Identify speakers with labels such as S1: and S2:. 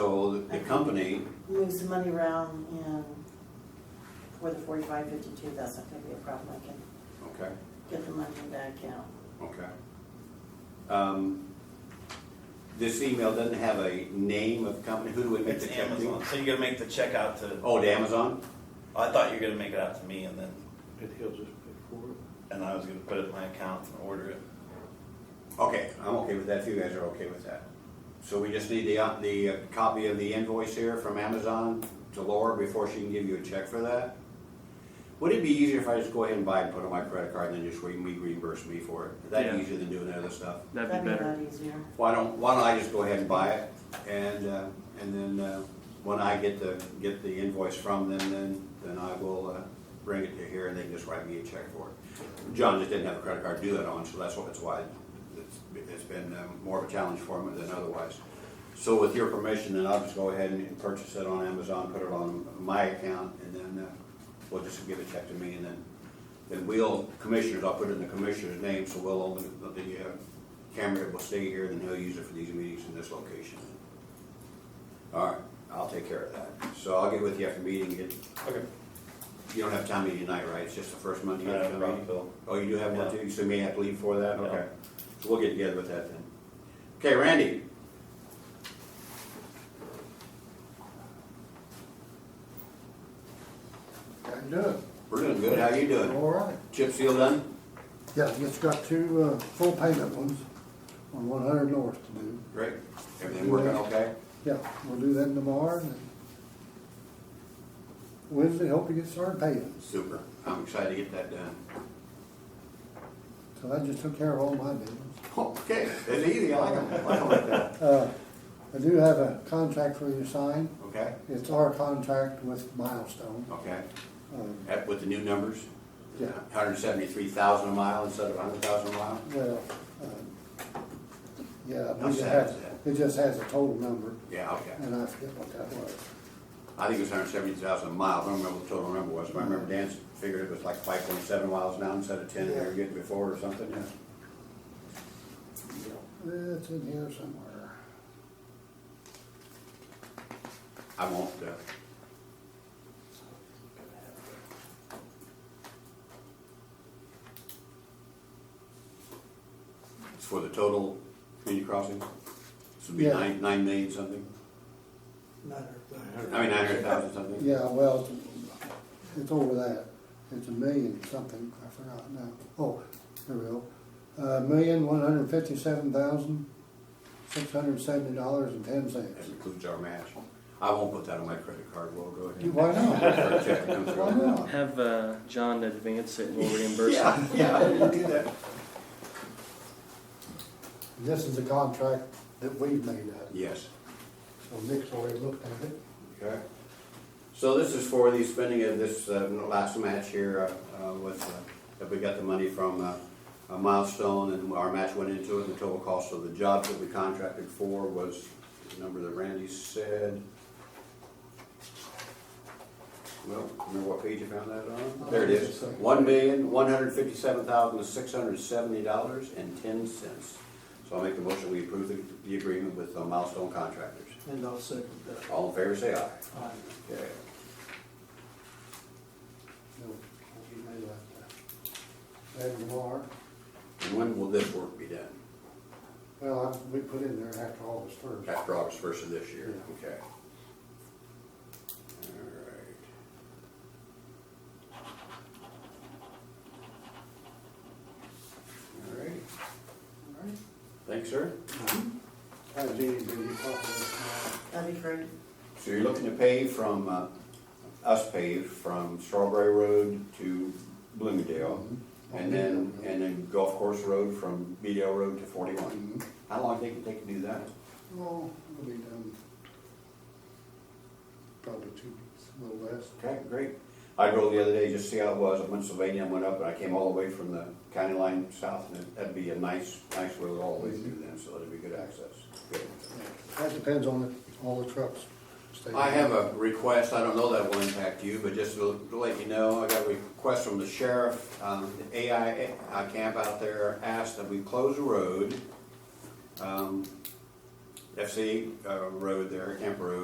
S1: company,
S2: move some money around and for the forty-five fifty-two, that's not gonna be a problem, I can
S1: okay,
S2: get the money in that account.
S1: okay. Um, This email doesn't have a name of company, who do we make
S3: It's
S1: the check to?
S3: Amazon, so you're gonna make the check out to,
S1: Oh, to Amazon?
S3: I thought you were gonna make it out to me and then,
S4: And he'll just pay for it.
S3: and I was gonna put it in my account and order it.
S1: Okay, I'm okay with that, if you guys are okay with that. So we just need the, uh, the uh, copy of the invoice here from Amazon to Laura before she can give you a check for that? Would it be easier if I just go ahead and buy it and put it on my credit card and then just re- me reimburse me for it? Is that
S5: Yeah.
S1: easier than doing that other stuff?
S5: That'd be better.
S2: That'd be a lot easier.
S1: Why don't, why don't I just go ahead and buy it, and, uh, and then, uh, when I get the, get the invoice from them, then, then I will, uh, bring it to here, and they can just write me a check for it. John just didn't have a credit card to do that on, so that's why, that's why it's, it's been um, more of a challenge for him than otherwise. So with your permission, then I'll just go ahead and purchase it on Amazon, put it on my account, and then, uh, we'll just give a check to me, and then, then we'll, commissioners, I'll put it in the commissioner's name, so we'll open the, the, uh, camera will stay here, and then he'll use it for these meetings in this location. All right, I'll take care of that. So I'll get with you after meeting, get,
S3: Okay.
S1: you don't have time meeting tonight, right? It's just the first Monday you
S3: I
S1: have
S3: have a
S1: town
S3: problem,
S1: meeting?
S3: Bill.
S1: Oh, you do have one too, so you may have to leave for that,
S3: Yeah.
S1: okay. So we'll get together with that then. Okay, Randy?
S6: I'm good.
S1: We're doing good, how you doing?
S6: All right.
S1: Chip seal done?
S6: Yeah, it's got two, uh, full payment ones on one hundred north to do.
S1: Great. Everything working okay?
S6: Yeah, we'll do that tomorrow and then Wednesday, hope to get started paying.
S1: Super, I'm excited to get that done.
S6: So I just took care of all my business.
S1: Oh, Okay, it's easy, I like 'em. I like 'em like that.
S6: Uh, I do have a contract for you to sign.
S1: Okay,
S6: It's our contract with Milestone.
S1: okay.
S6: Um,
S1: At- With the new numbers?
S6: Yeah.
S1: Hundred and seventy-three thousand a mile instead of hundred thousand a mile?
S6: Well, um, yeah,
S1: How
S6: we just
S1: sad
S6: have,
S1: is that?
S6: it just has a total number
S1: Yeah, okay.
S6: and I forget what that was.
S1: I think it was hundred and seventy thousand a mile, I don't remember what the total number was, but I remember Dan figured it was like five point seven miles now instead of ten they were getting before or something, yeah.
S6: It's in here somewhere.
S1: I won't, uh, it's for the total community crossing, this would be
S6: Yeah.
S1: nine, nine million something, I mean, nine hundred thousand something.
S6: Yeah, well, it's- it's over that. It's a million something, I forgot now. Oh, there we go. A million, one hundred fifty-seven thousand, six hundred seventy dollars and ten
S1: That
S6: cents.
S1: includes our match. I won't put that on my credit card, we'll go ahead.
S6: Why not?
S1: Check that comes through.
S6: Why not?
S5: Have uh, John advance it and we'll reimburse him.
S1: Yeah, yeah, you do that.
S6: This is a contract that we've made up,
S1: Yes.
S6: so Nick's already looked at it.
S1: Okay. So this is for the spending of this uh, last match here uh, uh, with, uh, that we got the money from uh, uh, Milestone and our match went into it. The total cost of the jobs that we contracted for was the number that Randy said. Well, remember what page you found that on? There it is. One million, one hundred fifty-seven thousand, six hundred seventy dollars and ten cents. So I'll make the motion, we approve the- the agreement with uh, Milestone Contractors.
S4: And I'll second that.
S1: All in favor, say aye.
S4: Aye.
S1: Okay.
S6: No, he made up that. That tomorrow.
S1: And when will this work be done?
S6: Well, I- we put in there after August first.
S1: After August first of this year,
S6: Yeah.
S1: okay. All right. All right. Thanks, sir.
S6: Mm-hmm. How's anybody talking?
S2: That'd be great.
S1: So you're looking to pave from, uh, us pave from Strawberry Road to Bloomingdale? And then, and then Golf Course Road from Beedale Road to forty-one? How long do you think they can do that?
S6: Well, it'll be done probably two weeks, a little less.
S1: Okay, great. I drove the other day, just to see how it was, I went to Sylvania, I went up, and I came all the way from the county line south, and it- that'd be a nice, nice road all the way through then, so that'd be good access. Good.
S6: That depends on the, all the trucks. staying.
S1: I have a request, I don't know that will impact you, but just to to let you know, I got a request from the sheriff, um, the AI uh, camp out there asked that we close the road, um, FC uh, Road there, Camp Road,